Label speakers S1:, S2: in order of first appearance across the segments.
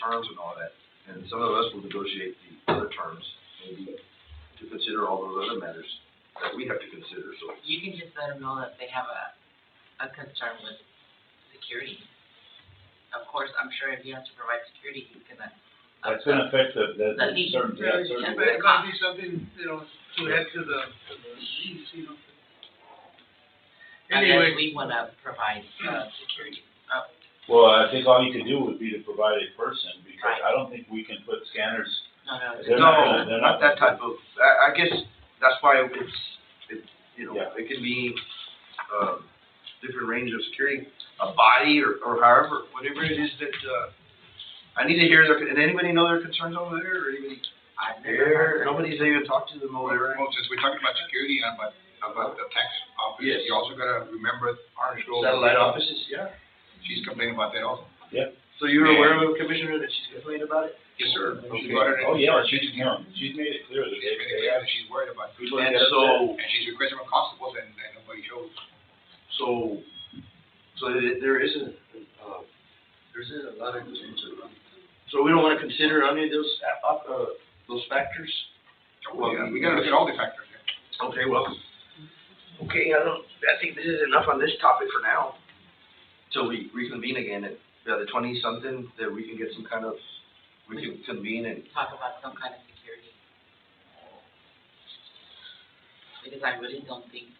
S1: terms and all that, and some of us will negotiate the other terms, maybe to consider all those other matters that we have to consider, so.
S2: You can just let them know that they have a, a concern with security. Of course, I'm sure if he has to provide security, uh, he's gonna.
S3: That's
S2: uh,
S3: gonna affect the, the,
S2: That needs to
S3: certain, yeah,
S2: really
S3: certain.
S2: check.
S4: But it might be something, you know, to add to the, to the lease, you know.
S2: Unless
S4: Anyway,
S2: we wanna provide, uh, security. Uh,
S3: Well, I think all you could do would be to provide a person, because
S2: Right.
S3: I don't think we can put scanners,
S2: no, no,
S3: They're not
S1: No,
S3: gonna- they're
S1: not
S3: not
S1: that
S3: gonna-
S1: type of, I, I guess that's why it's, it, you know,
S3: Yeah.
S1: it can be, um, different range of security, a body or, or however, whatever it is that, uh, I need to hear their, did anybody know their concerns over there or anybody?
S2: I've never.
S1: There, nobody's even talked to them over there.
S5: Well, since we're talking about security and about, about the tax office,
S1: Yes.
S5: you also gotta remember Orange Grove.
S1: Satellite offices, yeah.
S5: She's complaining about that also.
S1: So you're aware of Commissioner that she's complained about it?
S5: Yes, sir. She's
S3: Okay.
S5: got it in-
S3: oh, yeah, she's, no, she's made it clear that
S5: She's made it
S3: they, they
S5: clear
S3: have
S5: that she's worried about, it.
S3: people that
S1: And
S3: get upset.
S1: so,
S5: and she's requesting from constables and, and nobody shows.
S1: so, so there- there isn't, uh, there isn't a lot of concern around. So we don't wanna consider any of those, uh, uh, those factors?
S5: Well, we gotta look at all the factors. yeah.
S1: Okay, well, okay, I don't, I think this is enough on this topic for now. Till we reconvene again at, yeah, the twenty-something, that we can get some kind of, we can convene and,
S2: talk about some kind of security. Because I really don't think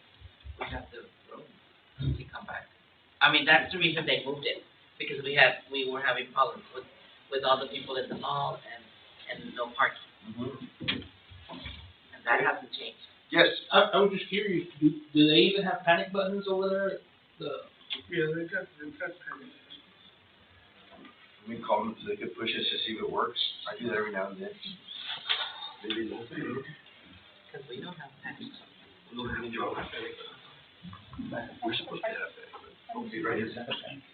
S2: we have the room to come back. I mean, that's the reason they moved it, because we had, we were having problems with, with all the people in the mall and, and no parking, and that hasn't changed.
S1: yes,
S6: I, I was just curious, do, do they even have panic buttons over there? at The,
S4: yeah, they've got, they've got.
S1: we can call them, so they could push us to see if it works, I do that every now and then. Maybe we'll see.
S2: Cause we don't have panic buttons.
S1: We'll have to do it. We're supposed to have that, but, okay, right, is that-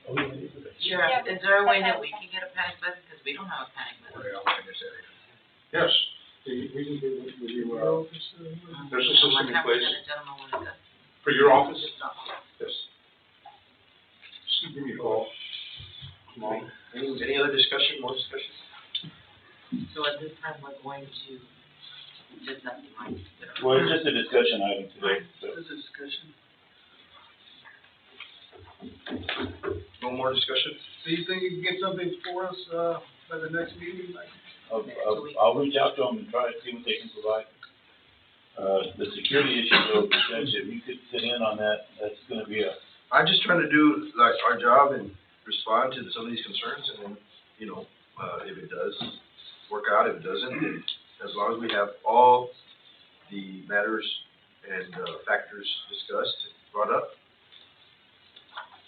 S3: Oh, yeah, they do that.
S2: Yeah, is there a way that we can get a panic button, cause we don't have a panic button?
S5: We're all in this area.
S1: Yes,
S7: The reason we, we, we were,
S4: Well, it's, uh,
S7: There's a system in place.
S2: One time we had a gentleman with us,
S7: for your
S2: who
S7: office,
S2: just not,
S7: yes. Just give me a call. Tomorrow.
S1: any, any other discussion, more discussion?
S2: so at this time, we're going to, just not mind.
S3: Well, it's just a discussion item today, so.
S4: This is discussion.
S1: No more discussion?
S4: So you think you can get something for us, uh, by the next meeting, like?
S3: I'll,
S2: Next
S3: I'll,
S2: week.
S3: I'll reach out to them and try to see what they can provide. Uh, the security issue though, Judge, if you could sit in on that, that's gonna be a,
S1: I'm just trying to do like our job and respond to some of these concerns and then, you know, uh, if it does work out, if it doesn't, then as long as we have all the matters and, uh, factors discussed, brought up,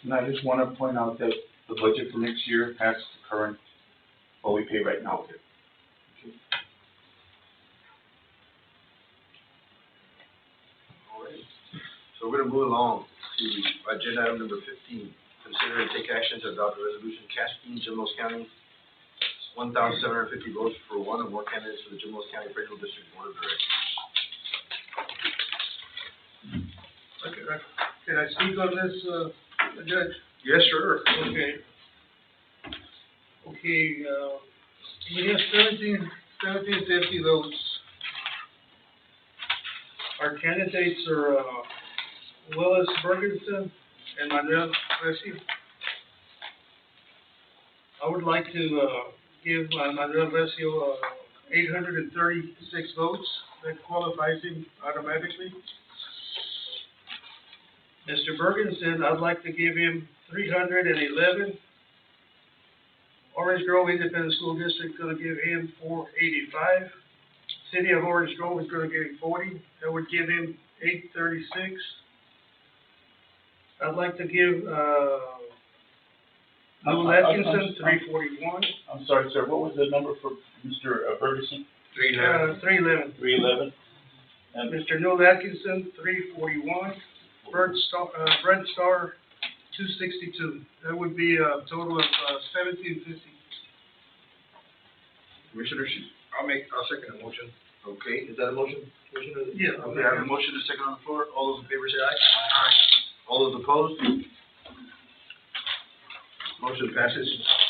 S8: And I just want to point out that the budget for next year has the current, what we pay right now.
S1: So we're gonna move along to agenda item number fifteen, consider and take action to adopt a resolution casting Jimos County one thousand seven hundred fifty votes for one or more candidates for the Jimos County Federal District Board of Directors.
S4: Okay, right. uh, Can I speak on this, uh, Judge?
S1: Yes, sure.
S4: Okay. Okay, uh, we have seventeen, seventeen fifty votes. Our candidates are, uh, Willis Ferguson and Manuel Resi. I would like to, uh, give uh, Manuel Resi, uh, eight hundred and thirty-six votes. That qualifies him automatically. Mr. Bergensen, I'd like to give him three hundred and eleven. Orange Grove Independent School District gonna give him four eighty-five. City of Orange Grove is gonna give him forty, that would give him eight thirty-six. I'd like to give, uh,
S3: I'm- I'm-
S4: Lou
S3: I'm-
S4: Atkinson, three forty-one,
S3: I'm sorry, sir, what was the number for Mr. Ferguson?
S5: Three levels.
S4: uh, three eleven.
S3: Three eleven? And
S4: Mr. Neil Atkinson, three forty-one, Brent Star, uh, Brent Star, two sixty-two. That would be a total of uh, seventeen fifty.
S1: Commissioner, Shi-
S5: I'll make, I'll second the motion.
S1: Okay, is that a motion, Commissioner?
S4: Yeah.
S1: Okay, I have a motion to second on the floor, all those in favor say aye. Aye. All those opposed? Motion passes.